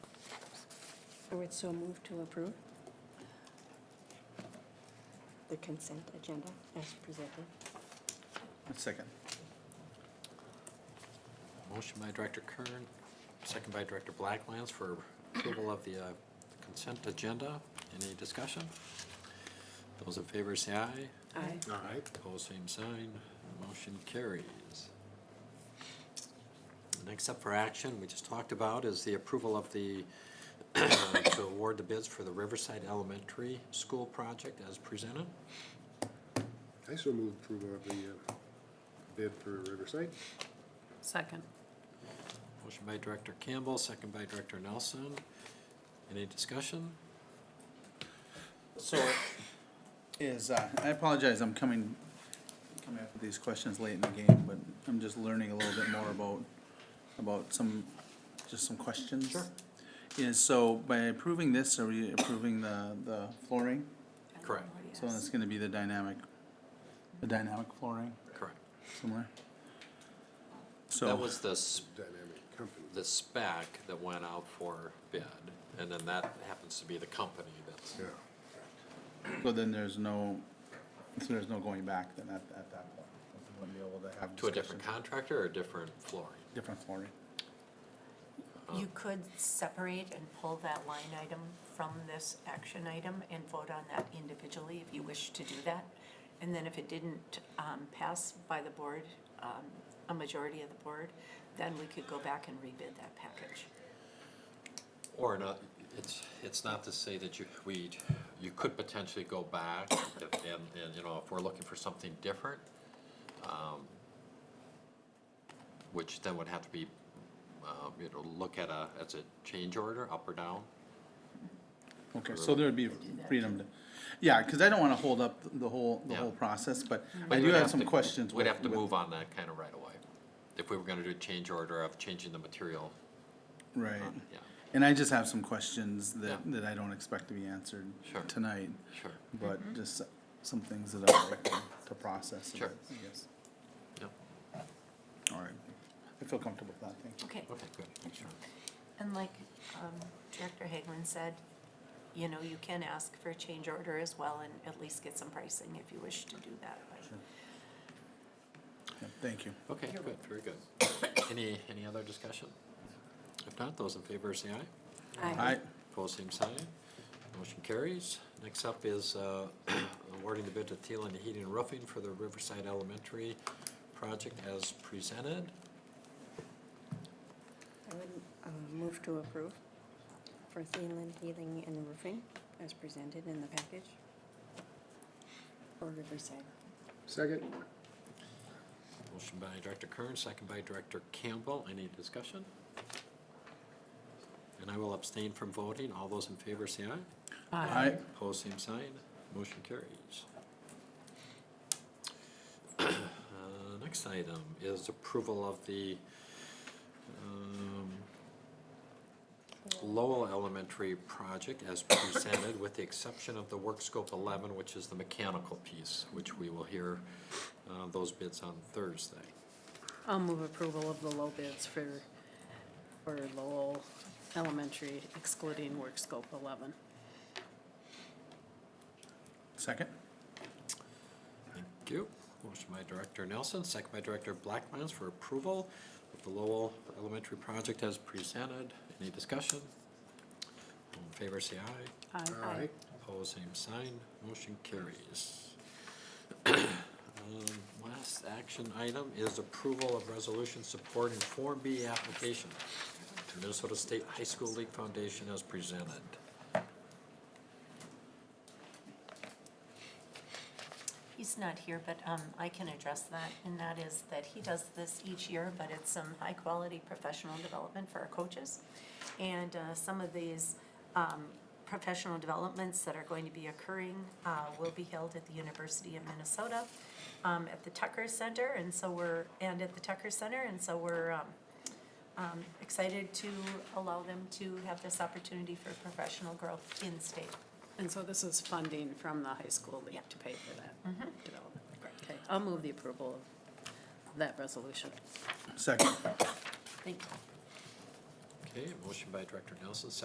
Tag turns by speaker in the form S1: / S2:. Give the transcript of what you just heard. S1: I would so move to approve the consent agenda as presented.
S2: Second.
S3: Motion by Director Kern, second by Director Blacklands for approval of the uh, consent agenda. Any discussion? Those in favor say aye.
S1: Aye.
S3: Aye. Opposed, same sign. Motion carries. Next up for action, we just talked about, is the approval of the, uh, to award the bids for the Riverside Elementary School project as presented.
S4: I so move approval of the uh, bid for Riverside.
S5: Second.
S3: Motion by Director Campbell, second by Director Nelson. Any discussion?
S2: So is, uh, I apologize, I'm coming, coming up with these questions late in the game, but I'm just learning a little bit more about, about some, just some questions. Sure. Is, so by approving this, are we approving the, the flooring?
S3: Correct,
S2: So it's gonna be the dynamic, the dynamic flooring,
S3: correct.
S2: similar?
S3: That
S2: So,
S3: was the, s-
S4: Dynamic Company.
S3: the spec that went out for bid, and then that happens to be the company that's,
S4: Yeah.
S2: so then there's no, so there's no going back then at, at that point? We wouldn't be able to have
S3: to a different
S2: discussion.
S3: contractor or a different flooring?
S2: Different flooring.
S5: You could separate and pull that line item from this action item and vote on that individually if you wish to do that. And then if it didn't um, pass by the board, um, a majority of the board, then we could go back and rebid that package.
S3: Or not, it's, it's not to say that you, we, you could potentially go back if, and, and, you know, if we're looking for something different, um, which then would have to be, um, you know, look at a, as a change order, up or down.
S2: Okay, so there would be freedom to, yeah, cause I don't wanna hold up the whole, the
S3: Yeah.
S2: whole process, but
S3: But
S2: I do
S3: we'd
S2: have some
S3: to-
S2: questions.
S3: We'd
S2: with-
S3: have to
S2: with-
S3: move on that kind of right away, if we were gonna do a change order of changing the material,
S2: Right,
S3: Uh, yeah,
S2: and I just have some questions that,
S3: Yeah.
S2: that I don't expect to be answered
S3: Sure.
S2: tonight,
S3: sure,
S2: but just some things that I'd like to- to process a
S3: Sure.
S2: bit, I guess.
S3: yeah,
S2: Alright, I feel comfortable with that, thank you.
S5: Okay.
S3: okay, good, sure.
S5: And like um, Director Hagman said, you know, you can ask for a change order as well and at least get some pricing if you wish to do that. but-
S2: Yeah, Thank you.
S3: Okay, good, very good. Any, any other discussion? If not, those in favor say aye.
S2: Alright,
S3: Opposed, same sign. Motion carries. Next up is uh, awarding the bid to Thielen Heating and Roofing for the Riverside Elementary project as presented.
S1: I would uh, move to approve for Thielen Healing and Roofing as presented in the package for Riverside.
S4: Second?
S3: Motion by Director Kern, second by Director Campbell. Any discussion? And I will abstain from voting. All those in favor say aye.
S2: alright,
S3: Opposed, same sign. Motion carries. Uh, Next item is approval of the um, Lowell Elementary project as presented, with the exception of the work scope 11, which is the mechanical piece, which we will hear uh, those bids on Thursday.
S6: I'll move approval of the low bids for, for Lowell Elementary excluding work scope 11.
S2: second,
S3: Thank you. Motion by Director Nelson, second by Director Blackmans for approval of the Lowell Elementary project as presented. Any discussion? All in favor, say aye.
S6: Aye.
S4: Aye.
S3: Opposed, same sign. Motion carries. Um, Last action item is approval of resolution supporting Form B application to Minnesota State High School League Foundation as presented.
S5: He's not here, but um, I can address that, and that is that he does this each year, but it's some high-quality professional development for our coaches. And uh, some of these um, professional developments that are going to be occurring uh, will be held at the University of Minnesota, um, at the Tucker Center, and so we're, and at the Tucker Center, and so we're um, um, excited to allow them to have this opportunity for professional growth in state.
S6: And so this is funding from the high school
S5: Yeah.
S6: league to pay for that development. Okay, Mm-hmm. I'll move the approval of that resolution.
S2: second.
S5: Thank you.
S3: Okay, motion by Director Nelson, second